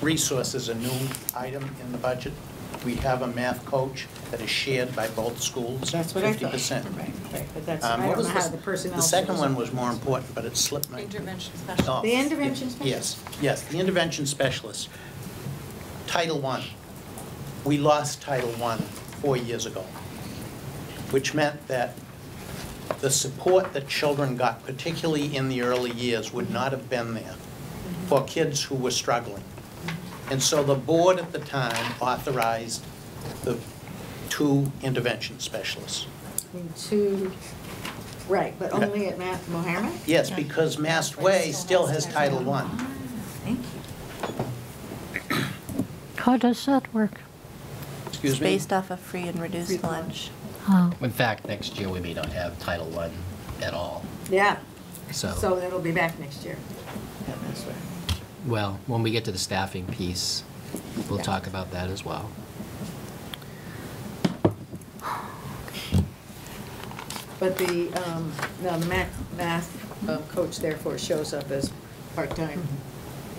resource is a new item in the budget. We have a math coach that is shared by both schools, That's what I fifty thought. percent. Um, Right, right, but that's, I don't know how the personnel. The second shows. one was more important, but it slipped my. Intervention special. Oh, The intervention Yes, yes, the intervention specialist. Title I, we lost Title I four years ago, which meant that the support that children got, particularly in the early years, would not have been there for kids who were struggling. And so the board at the time authorized the two intervention specialists. And Two, right, but only at Math Mohammed? Yes, because Mass Way still has Title I. Thank you. How does that work? Excuse It's me? based off of free and reduced lunch. Oh, In fact, next year, we may not have Title I at all, Yeah, so, so it'll be back next year. well, when we get to the staffing piece, we'll Yeah. talk about that as well. But the, um, no, the math, math uh, coach therefore shows up as part-time.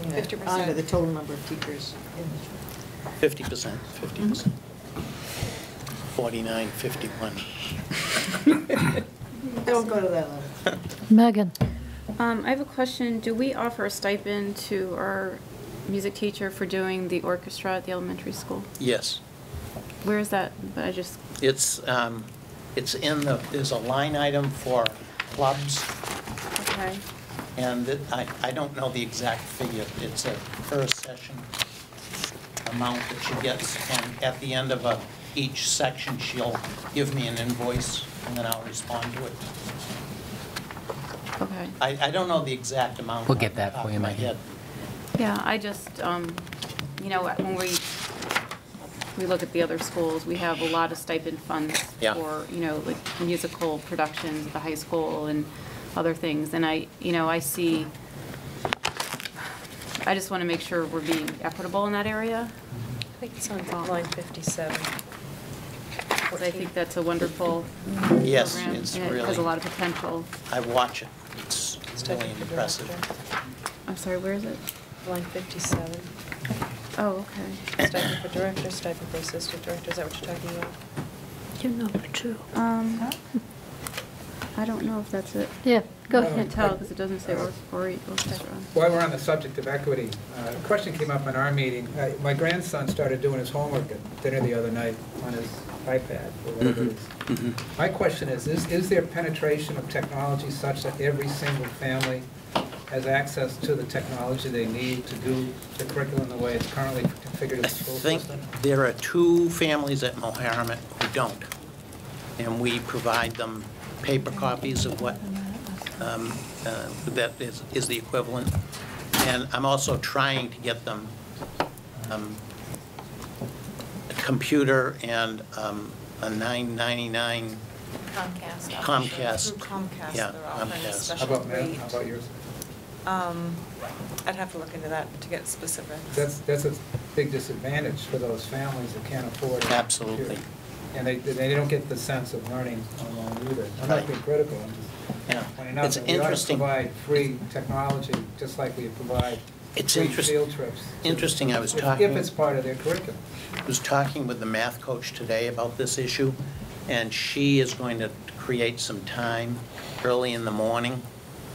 you know, 50%. Under the total number of teachers. Fifty percent, fifty percent. Forty-nine, fifty-one. Don't go to that level. Megan, Um, I have a question. Do we offer a stipend to our music teacher for doing the orchestra at the elementary school? Yes, Where is that? But I just, it's, um, it's in the, there's a line item for clubs, okay. and it- I, I don't know the exact figure. It's a per session amount that she gets, and at the end of a, each section, she'll give me an invoice, and then I'll respond to it. Okay. I, I don't know the exact amount. We'll get off the that top for of you, my Maggie. head. Yeah, I just, um, you know, when we, we look at the other schools, we have a lot of stipend funds Yeah. for, you know, like musical productions at the high school and other things. And I, you know, I see, I just want to make sure we're being equitable in that area. I think it's on line 57. Because I think that's a wonderful Yes, program, it's and it has a really- lot of potential. I watch it. It's really impressive. I'm sorry, where is it? Line 57. Oh, okay. Stipend for directors, stipend for assistant directors, is that what you're talking about? you're number two. Um, I don't know if that's it. Yeah, go I ahead. can't tell because it doesn't say or- or- orchestra. While we're on the subject of equity, uh, a question came up in our meeting. Uh, My grandson started doing his homework at dinner the other night on his iPad or whatever it Mm-hmm. is. My question is, is is there penetration of technology such that every single family has access to the technology they need to do the curriculum the way it's currently configured in I the school think system? there are two families at Moheramet who don't, and we provide them paper copies of what, um, uh, that is is the equivalent. And I'm also trying to get them um, a computer and um, a 999 Comcast. Comcast. Through Comcast, Yeah, they're offering Comcast. a How special about ma'am, rate. how about yours? Um, I'd have to look into that to get specific. That's, that's a big disadvantage for those families that can't afford. a computer. Absolutely. And they, they don't get the sense of learning online either. I'm Right. not being critical, I'm just pointing out It's that we ought to interesting. provide free technology, just like we provide It's free interest- field trips. Interesting, I was If- talking... If it's part of their curriculum. was talking with the math coach today about this issue, and she is going to create some time early in the morning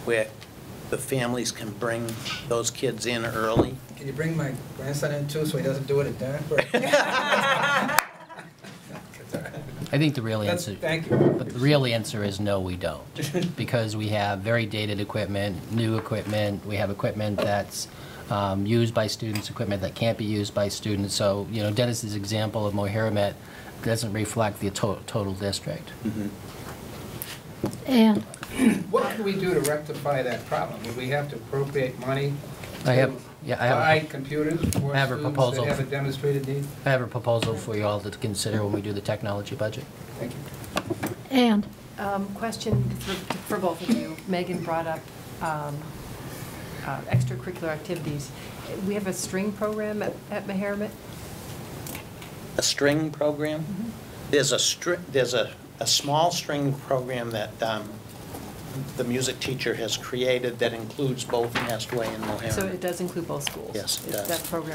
where the families can bring those kids in early. Can you bring my grandson in too, so he doesn't do it at dinner? I think the real That's- answer. thank you. But the real answer is no, we don't. Because we have very dated equipment, new equipment, we have equipment that's um, used by students, equipment that can't be used by students. So, you know, Dennis's example of Moheramet doesn't reflect the to- total district. And What can we do to rectify that problem? Would we have to appropriate money? I have- to yeah, I have a- Buy computers for I have a students proposal. that have a demonstrated need? I have a proposal for you all to consider when we do the technology budget. Thank you. And, Um, Question for for both of you. Megan brought up um, uh, extracurricular activities. We have a string program at at Meharmet? A string program? There's a string, there's a, a small string program that um, the music teacher has created that includes both Nestway and Mohammed. So it does include both schools? Yes, it Is does. That program